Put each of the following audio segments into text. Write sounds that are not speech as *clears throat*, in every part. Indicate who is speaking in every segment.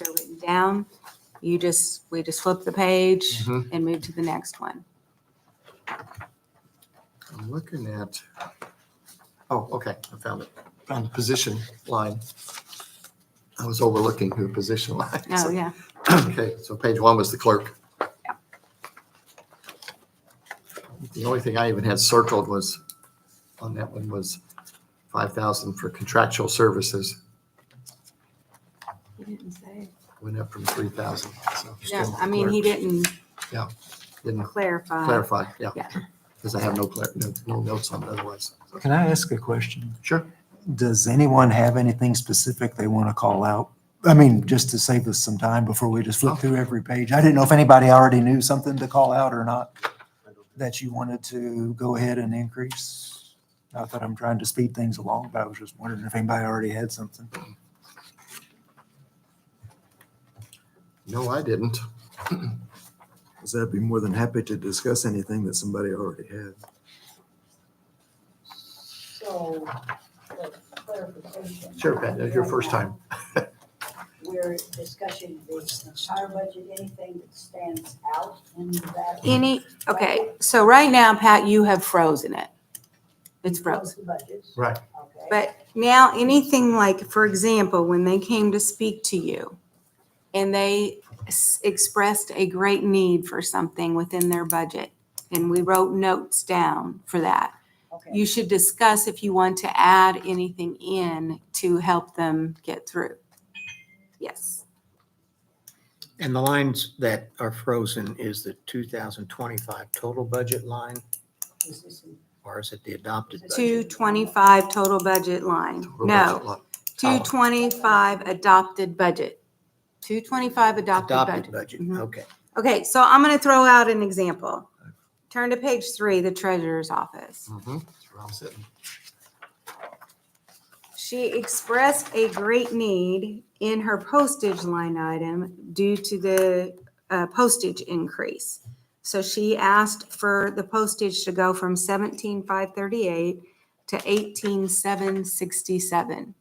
Speaker 1: they're written down. You just, we just flip the page
Speaker 2: Mhm.
Speaker 1: and move to the next one.
Speaker 2: I'm looking at, oh, okay, I found it, found the position line. I was overlooking who the position line. is.
Speaker 1: Oh, yeah.
Speaker 2: *clears throat* Okay, so page one was the clerk. The only thing I even had circled was, on that one was five thousand for contractual services,
Speaker 1: He didn't say.
Speaker 2: went up from three thousand, so.
Speaker 1: No, I mean, he didn't
Speaker 2: Didn't
Speaker 1: clarify.
Speaker 2: clarify, yeah.
Speaker 1: yeah.
Speaker 2: Because I have no clar, no, no notes on it otherwise.
Speaker 3: Can I ask a question?
Speaker 2: Sure.
Speaker 3: Does anyone have anything specific they want to call out? I mean, just to save us some time before we just flip through every page. I didn't know if anybody already knew something to call out or not that you wanted to go ahead and increase. Not that I'm trying to speed things along, but I was just wondering if anybody already had something.
Speaker 2: No, I didn't.
Speaker 4: Because I'd be more than happy to discuss anything that somebody already had.
Speaker 5: So, for clarification.
Speaker 2: Sure, Pat, that's your first time.
Speaker 5: We're discussing the entire budget, anything that stands out in that.
Speaker 1: Any, okay, so right now, Pat, you have frozen it. It's frozen.
Speaker 5: Close the budgets,
Speaker 2: Right.
Speaker 5: okay?
Speaker 1: But now, anything like, for example, when they came to speak to you and they s- expressed a great need for something within their budget, and we wrote notes down for that,
Speaker 5: Okay,
Speaker 1: you should discuss if you want to add anything in to help them get through. Yes,
Speaker 6: And the lines that are frozen is the 2025 total budget line,
Speaker 5: is this in-
Speaker 6: or is it the adopted? budget?
Speaker 1: two twenty-five total budget Oh. line. No, two twenty-five adopted budget. Two twenty-five adopted budget.
Speaker 6: Adopted budget,
Speaker 1: Mhm.
Speaker 6: okay.
Speaker 1: Okay, so I'm going to throw out an example. Turn to page three, the treasurer's office.
Speaker 2: Mm-hmm, that's where I'm sitting.
Speaker 1: She expressed a great need in her postage line item due to the uh, postage increase. So she asked for the postage to go from seventeen five thirty-eight to eighteen seven sixty-seven.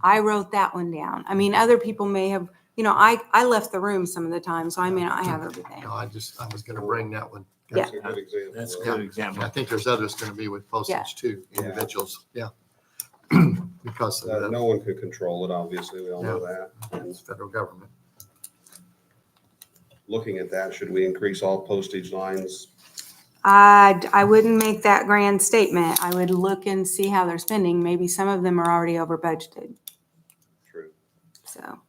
Speaker 1: I wrote that one down. I mean, other people may have, you know, I, I left the room some of the time, so I may not have everything.
Speaker 2: No, I just, I was gonna bring that one.
Speaker 1: Yeah.
Speaker 7: That's a good example.
Speaker 8: That's a
Speaker 7: of-
Speaker 8: good
Speaker 2: I
Speaker 8: example.
Speaker 2: think there's others gonna be with
Speaker 1: Yeah.
Speaker 2: postage too,
Speaker 7: Yeah.
Speaker 2: individuals, yeah. *clears throat* Because of
Speaker 7: that
Speaker 2: the
Speaker 7: Uh, No one could control it, obviously, we all know that.
Speaker 2: it's federal government.
Speaker 7: Looking at that, should we increase all postage lines?
Speaker 1: I, I wouldn't make that grand statement. I would look and see how they're spending. Maybe some of them are already over budgeted,
Speaker 7: True.
Speaker 1: so.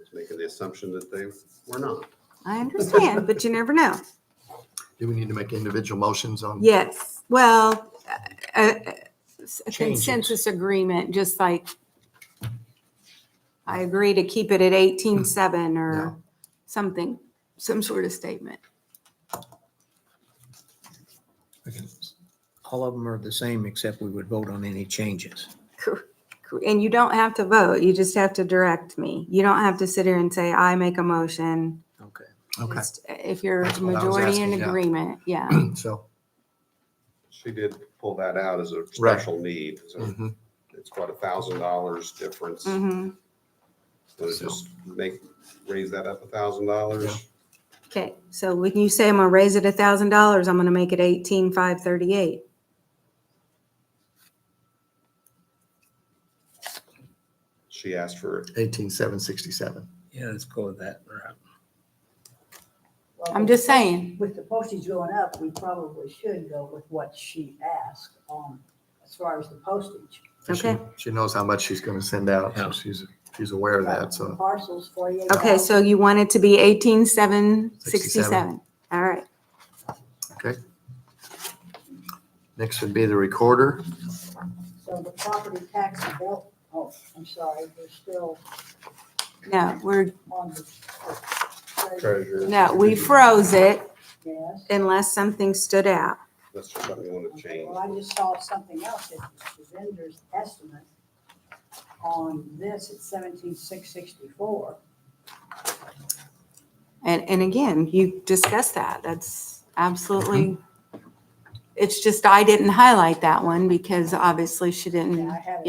Speaker 7: It's making the assumption that they were not.
Speaker 1: I understand, but you never know.
Speaker 2: Do we need to make individual motions on?
Speaker 1: Yes, well, a- a
Speaker 2: Changes.
Speaker 1: consensus agreement, just like I agree to keep it at eighteen-seven or
Speaker 2: No.
Speaker 1: something, some sort of statement.
Speaker 6: All of them are the same, except we would vote on any changes.
Speaker 1: And you don't have to vote, you just have to direct me. You don't have to sit here and say, I make a motion.
Speaker 6: Okay.
Speaker 2: Okay,
Speaker 1: Just uh, If you're
Speaker 2: That's what I was
Speaker 1: majority in
Speaker 2: asking, yeah.
Speaker 1: agreement,
Speaker 2: *clears throat*
Speaker 1: yeah.
Speaker 2: so,
Speaker 7: She did pull that out as a special need,
Speaker 8: Mm.
Speaker 7: so
Speaker 2: mhm,
Speaker 7: it's about a thousand dollars difference.
Speaker 1: hmm
Speaker 7: So just make, raise that up a thousand dollars.
Speaker 1: Okay, so when you say I'm gonna raise it a thousand dollars, I'm gonna make it eighteen five thirty-eight.
Speaker 7: She asked for,
Speaker 2: eighteen seven sixty-seven.
Speaker 6: Yeah, let's go with that route.
Speaker 5: well,
Speaker 1: I'm just saying,
Speaker 5: With the postage going up, we probably should go with what she asked on, as far as the postage.
Speaker 1: Okay.
Speaker 2: She knows how much she's gonna send out, so
Speaker 6: Yeah.
Speaker 2: she's, she's aware of that, so.
Speaker 5: Parcels, forty-eight.
Speaker 1: okay, so you want it to be eighteen seven sixty-seven.
Speaker 2: 67.
Speaker 1: All right,
Speaker 2: Next would be the recorder.
Speaker 5: So the property tax and bill, oh, I'm sorry, we're still
Speaker 1: no, we're,
Speaker 5: on the. uh,
Speaker 7: treasurer.
Speaker 1: no, we froze it
Speaker 5: Yes.
Speaker 1: unless something stood out.
Speaker 7: That's just something we want to
Speaker 5: Okay,
Speaker 7: change.
Speaker 5: Well, I just saw something else, that the vendor's estimate on this at seventeen six sixty-four.
Speaker 1: And, and again, you discussed that, that's absolutely, it's just I didn't highlight that one because obviously she didn't.
Speaker 5: I had